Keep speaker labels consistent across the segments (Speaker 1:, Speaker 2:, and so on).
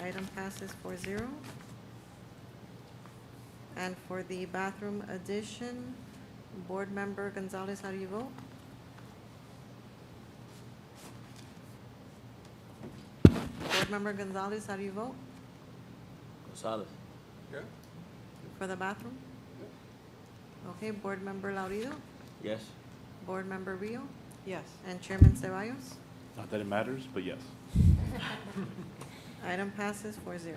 Speaker 1: Item passes 4-0. And for the bathroom addition, Board Member Gonzalez, how do you vote? Board Member Gonzalez, how do you vote
Speaker 2: Gonzalez.
Speaker 3: Yeah,
Speaker 1: for the bathroom? Okay, Board Member Laurido,
Speaker 2: Yes.
Speaker 1: Board Member Rio,
Speaker 4: Yes.
Speaker 1: and Chairman Ceballos.
Speaker 5: Not that it matters, but yes.
Speaker 1: Item passes 4-0.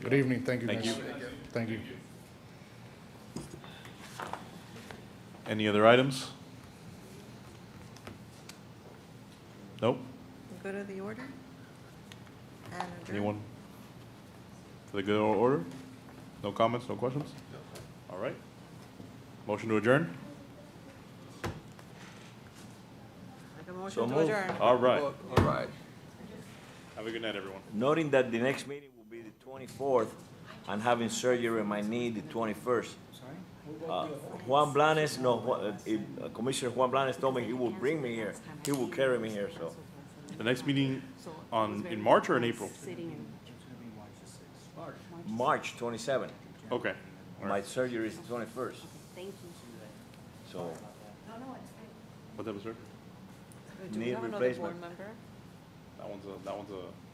Speaker 6: Good evening, thank you
Speaker 5: Thank
Speaker 6: guys.
Speaker 5: you.
Speaker 6: Thank you.
Speaker 5: Any other items? Nope.
Speaker 1: Go to the order. And adjourn.
Speaker 5: Anyone? For the good order? No comments, no questions? All right. Motion to adjourn?
Speaker 4: Make a
Speaker 2: So Uh,
Speaker 4: motion to
Speaker 2: moved.
Speaker 4: adjourn.
Speaker 5: All right.
Speaker 3: all all right.
Speaker 5: Have a good night, everyone.
Speaker 2: Noting that the next meeting will be the twenty-fourth, I'm having surgery in my knee the twenty-first. Uh, Juan Blanes, no, Ju- uh, if- uh, Commissioner Juan Blanes told me he will bring me here, he will carry me here, so.
Speaker 5: The next meeting on, in March or in April?
Speaker 2: March twenty-seventh,
Speaker 5: Okay. All
Speaker 2: my
Speaker 5: right.
Speaker 2: surgery is the twenty-first,
Speaker 7: Thank you.
Speaker 2: so
Speaker 5: What that was, sir?
Speaker 4: Do we
Speaker 2: Need
Speaker 4: have another board
Speaker 2: replacement.
Speaker 4: member?
Speaker 5: That one's a, that one's a